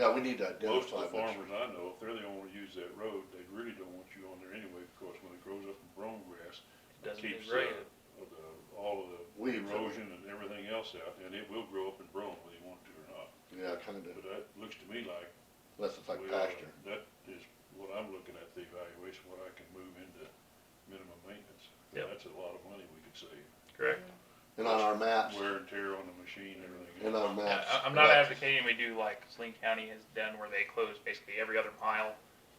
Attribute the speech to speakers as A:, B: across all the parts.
A: Yeah, we need to
B: Most of the
A: identify
B: farmers
A: which,
B: I know, if they're the only ones use that road, they really don't want you on there anyway, because when it grows up in brome grass, it
C: Doesn't
B: keeps,
C: degrade
B: uh,
C: it.
B: the, all of the
A: Weeds.
B: erosion and everything else out, and it will grow up in brome whether you want to or not.
A: yeah, kinda,
B: But that looks to me like.
A: unless it's like
B: we ought to-
A: pasture.
B: That is what I'm looking at, the evaluation, what I can move into minimum maintenance.
C: Yep.
B: That's a lot of money we could save,
C: correct?
A: And on our maps,
B: wear and tear on the machine, everything
A: and um,
B: else.
A: our maps.
C: I- I'm not
A: yeah.
C: advocating we do like Saline County has done where they close basically every other mile,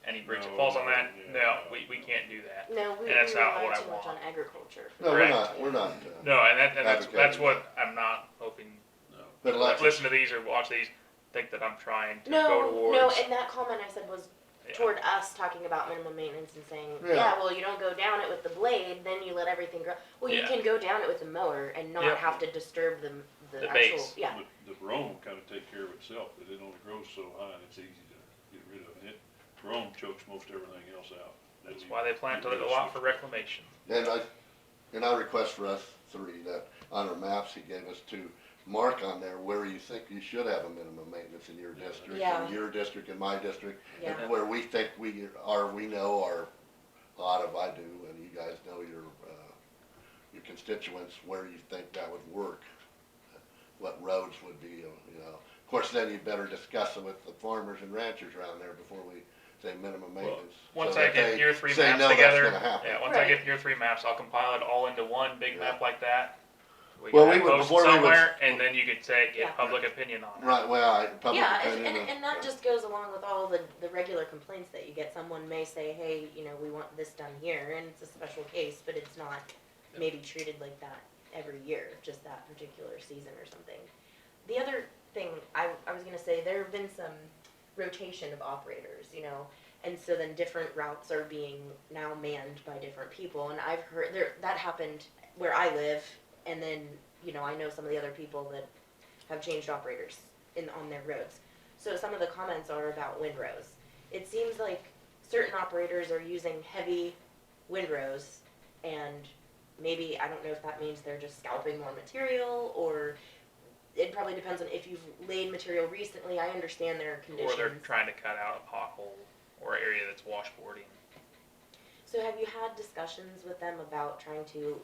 C: any bridge that
B: No,
C: falls on that,
B: yeah,
C: no,
B: no,
C: we, we
B: no.
C: can't do that.
D: No, we we
C: And that's not
D: rely
C: what I
D: too much on
C: want.
D: agriculture.
A: No, we're
C: correct.
A: not, we're not, uh,
C: No, and that, and that's, that's
A: Advocating.
C: what I'm not hoping,
B: No.
A: but like,
C: listen to these or watch these, think that I'm trying to go
D: No, no,
C: towards.
D: and that comment I said was
C: Yeah.
D: toward us talking about minimum maintenance and saying,
A: Yeah.
D: yeah, well, you don't go down it with the blade, then you let everything grow. Well, you
C: Yeah.
D: can go down it with the mower and
C: Yep.
D: not have to disturb the, the
C: The
D: actual,
C: base.
D: yeah.
B: But The brome kind of take care of itself, but it only grows so high and it's easy to get rid of. It, brome chokes most everything else out.
C: That's why they planted a lot for reclamation.
A: and I, and I request for us three that on our maps he gave us to mark on there where you think you should have a minimum maintenance in your district,
D: Yeah.
A: in your district, in my district,
D: Yeah.
A: and where we think we are, we know our, a lot of I do, and you guys know your, uh, your constituents, where you think that would work, what roads would be, you know. Of course, then you better discuss it with the farmers and ranchers around there before we say minimum maintenance. so
C: Once I
A: that they
C: get your three
A: say,
C: maps
A: "No, that's
C: together,
A: gonna happen."
C: yeah, once I
D: Right.
C: get your three maps, I'll compile it all into one big
A: Yeah.
C: map like that. We
A: Well,
C: can
A: we
C: have
A: would-
C: posted
A: before we would-
C: somewhere, and then you could say,
D: Yeah.
C: get public opinion on it.
A: Right, well, I, public
D: Yeah, and,
A: opinion. uh,
D: and, and that just goes along with all the, the regular complaints that you get. Someone may say, hey, you know, we want this done here, and it's a special case, but it's not maybe treated like that every year, just that particular season or something. The other thing I, I was gonna say, there have been some rotation of operators, you know, and so then different routes are being now manned by different people, and I've heard, there, that happened where I live, and then, you know, I know some of the other people that have changed operators in, on their roads. So some of the comments are about windrows. It seems like certain operators are using heavy windrows and maybe, I don't know if that means they're just scalping more material or it probably depends on if you've laid material recently. I understand their
C: Or they're
D: conditions.
C: trying to cut out a pothole or area that's washboarding.
D: So have you had discussions with them about trying to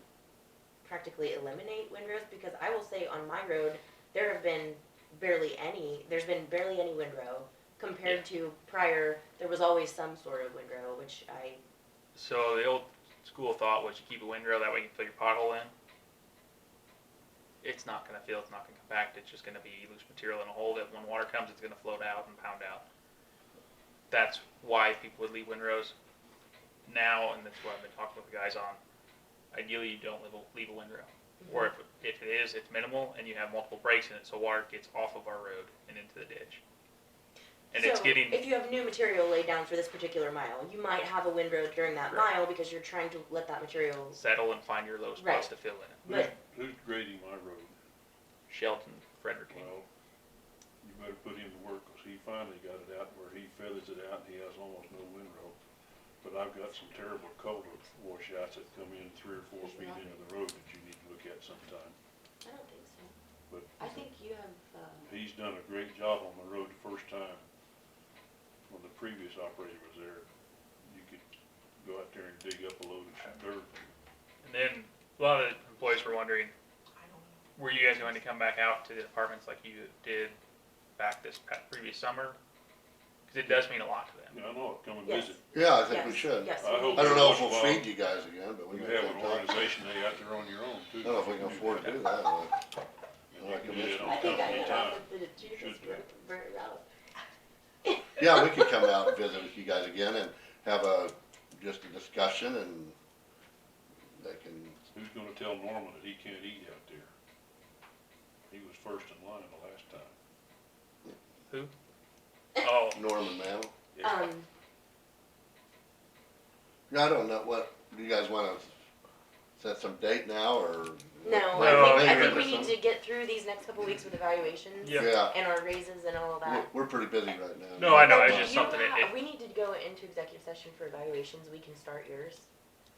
D: practically eliminate windrows? Because I will say on my road, there have been barely any, there's been barely any windrow compared to prior, there was always some sort of windrow, which I,
C: So the old school thought was you keep a windrow, that way you can fill your pothole in. It's not gonna fill, it's not gonna compact, it's just gonna be loose material in a hole that when water comes, it's gonna float out and pound out. That's why people would leave windrows now, and that's what I've been talking with the guys on. Ideally, you don't leave a, leave a windrow. Or if, if it is, it's minimal and you have multiple breaks in it, so water gets off of our road and into the ditch. And it's
D: So,
C: getting,
D: If you have new material laid down for this particular mile, you might have a windrow during that
C: Correct.
D: mile because you're trying to let that material,
C: settle and find your low
D: Right.
C: spots to fill in it.
B: Who's,
D: but-
B: who's grading my road?
C: Shelton, Frederick.
B: Well, you better put him to work, 'cause he finally got it out where he feathers it out and he has almost no windrow. But I've got some terrible culvert washouts that come in three or four feet into the road that you need to look at sometime.
D: I don't think so.
B: But
D: I think you have, uh,
B: He's done a great job on the road the first time. When the previous operator was there, you could go out there and dig up a load of dirt.
C: And then a lot of the employees were wondering, were you guys going to come back out to the departments like you did back this pa- previous summer? Because it does mean a lot to them.
B: You know, I know, it, come and
D: Yes.
B: visit.
A: Yeah, I think we
D: yes,
A: should.
D: yes,
B: I
D: we
B: hope
D: need
A: I
D: to.
A: don't know if we'll
B: Well,
A: feed you guys again, but we
B: You
A: may
B: have
A: have
B: an
A: time. I
B: organization day out there on your own too.
A: don't know if we can afford to do that, but
B: And you can do that
D: I
B: on
D: think I
B: company
D: got
B: time.
D: off at the Jesus
B: Should do it.
D: Bur- route.
A: yeah, we could come out and visit with you guys again and have a, just a discussion and they can,
B: Who's gonna tell Norman that he can't eat out there? He was first in line the last time.
C: Oh,
A: Norman Mantle.
D: Um,
A: Yeah, I don't know what, do you guys wanna set some date now or?
D: no,
C: No,
D: I think, I
C: maybe
D: think we
A: there's
D: need to get through these next couple weeks with evaluations
C: Yeah.
A: Yeah,
D: and our raises and all of
A: we're,
D: that.
A: we're pretty busy right now.
C: No, I know,
D: But
C: it's
D: do
C: just
D: you
C: something that
D: have-
C: it-
D: We need to go into executive session for evaluations, we can start yours.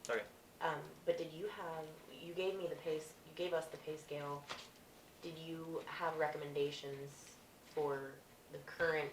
C: Okay.
D: Um, but did you have, you gave me the pay, s- you gave us the pay scale, did you have recommendations for the current